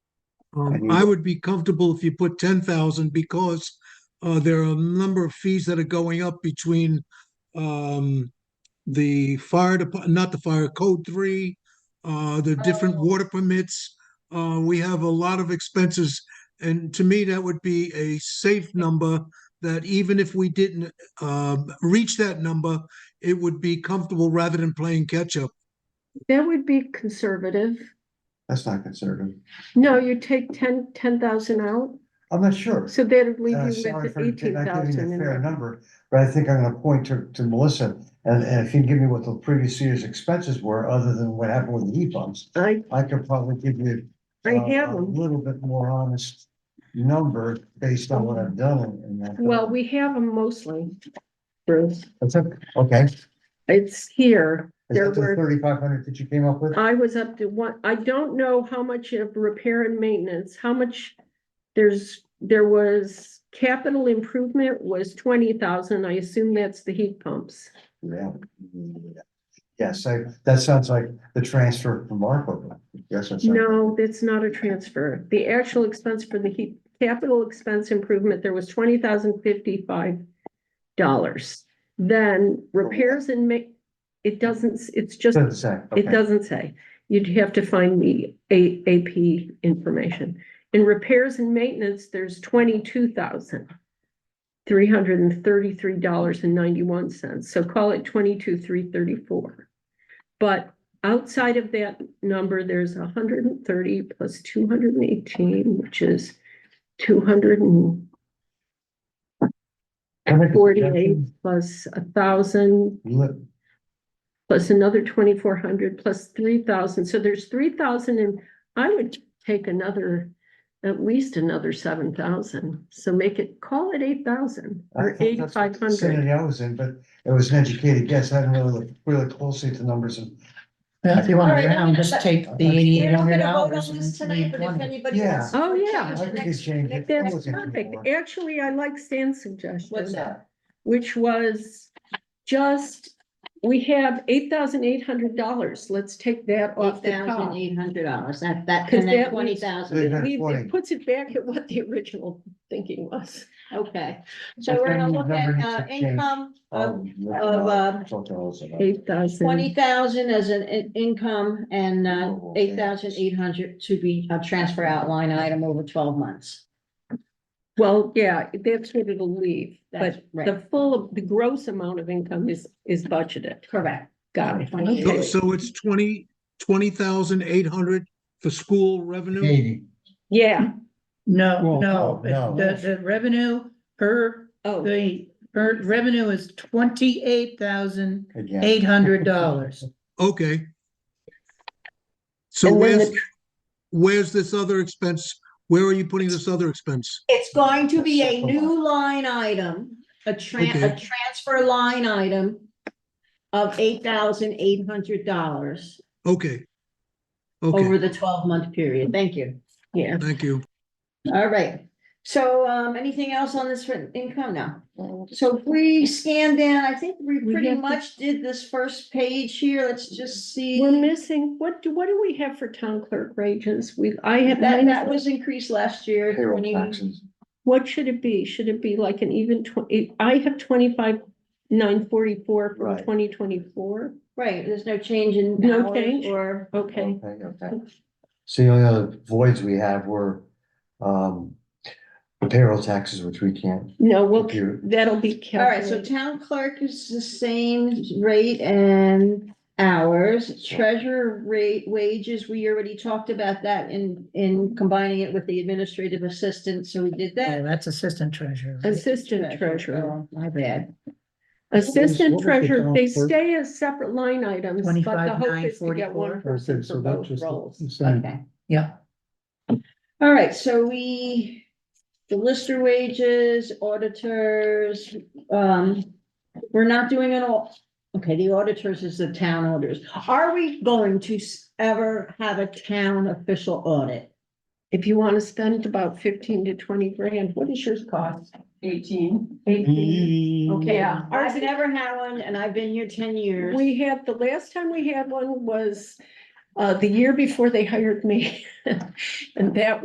Um, And I you- would be comfortable if you put ten thousand because uh, there are a number of fees that are going up between um, the fire department, not the fire code three, uh, the different water permits. Uh, we have a lot of expenses, and to me, that would be a safe number that even if we didn't um, reach that number, it would be comfortable rather than playing catch up. That would be conservative. That's not conservative. No, you take ten, ten thousand out, I'm not sure. so that'd leave Uh, you Sorry with for not eighteen giving you a fair thousand. number, but I think I'm gonna point to, to Melissa, and, and if you can give me what the previous year's expenses were, other than what happened with the heat pumps, I, I could probably give you I uh, have A 'em. little bit more honest number based on what I've done in- in that. well, we have them mostly, Bruce. That's okay, okay. Is It's here. There that the were, thirty-five hundred that you came up with? I was up to one, I don't know how much of repair and maintenance, how much there's, there was capital improvement was twenty thousand. I assume that's the heat pumps. Yeah. Yes, I, that sounds like the transfer from Marco. Yes, that's. No, that's not a transfer. The actual expense for the heat, capital expense improvement, there was twenty thousand fifty-five dollars. Then repairs and ma- it doesn't, s- it's just, Doesn't say, it okay. doesn't say. You'd have to find the A, AP information. In repairs and maintenance, there's twenty-two thousand three hundred and thirty-three dollars and ninety-one cents, so call it twenty-two, three thirty-four. But outside of that number, there's hundred and thirty plus two hundred and eighteen, which is two hundred and Can I make a forty-eight suggestion? plus a thousand, Let- plus another twenty-four hundred, plus three thousand, so there's three thousand and I would take another, at least another seven thousand, so make it, call it eight thousand I or thought that's what eighty-five the hundred. Vicinity I was in, but it was an educated guess. I hadn't really looked, really closely at the numbers and, Well, if you want All to right, go I'm down, gonna just let- take the Okay. eighty We're eight not hundred gonna vote dollars on and this tonight, but if 320. anybody Yeah. wants. Oh, to yeah. change I the think next- it's changed. next- That That's wasn't perfect. before. Actually, I like Stan's suggestion, What's that? which was just, we have eight thousand eight hundred dollars, let's take that off Eight the top. thousand eight hundred dollars, that, that, 'Cause and that then was- twenty thousand, It Yeah, leaves- forty. it puts it back at what the original thinking was. okay. I So we're gonna think look the number at, needs uh, to change. income of um, look, of, uh, uh, talk to us about it. Eight thousand. twenty thousand as an in- income and, uh, Oh, okay. eight thousand eight hundred to be a transfer outline item over twelve months. Well, yeah, that's what it'll leave, That's but right. the full, the gross amount of income is, is budgeted. Correct. Got it. Twenty-eight. Okay. So- So it's twenty, twenty thousand eight hundred for school revenue? Eighty. Yeah, No, Well, no, no, the, the revenue per, oh, the, per revenue is twenty-eight thousand Again, eight hundred dollars. Okay. So And then the where's, where's this other expense? Where are you putting this other expense? It's going to be a new line item, a tran- a Okay. transfer line item of eight thousand eight hundred dollars Okay. over Okay, the twelve month period. Thank you. yeah. thank you. All right. So um, anything else on this for income now? So if we scan down, I think we We pretty have to- much did this first page here. Let's just see. We're missing, what do, what do we have for town clerk wages? We, I have, That, that mine- was increased last year. payroll 20 taxes. what should it be? Should it be like an even twenty, I have twenty-five, nine forty-four from Right. twenty twenty-four? Right, there's no change in No hours change? or. Okay, Okay, okay. So the only other voids we have were, um, the payroll taxes, which we can't no, well, compute. that'll be All right, so calculated. town clerk is the same rate and hours, treasurer rate wages, we already talked about that in, in combining it with the administrative assistant, so we did Yeah, that. that's assistant treasurer. right? Assistant treasurer. Oh, My bad. Assistant what was the treasurer, town they clerk? stay as separate line items, but the hope is to get 25,944. one person Okay, for so that's both just roles. the same. Okay. Yeah, All right, so we, the lister wages, auditors, um, we're not doing it all. Okay, the auditors is the town auditors. Are we going to s- ever have a town official audit? If you want to spend about fifteen to twenty grand, what is yours cost? Eighteen. Eighteen. Okay. Yeah. Ours I've is- never had one and I've been here ten years. We had, the last time we had one was uh, the year before they hired me. And that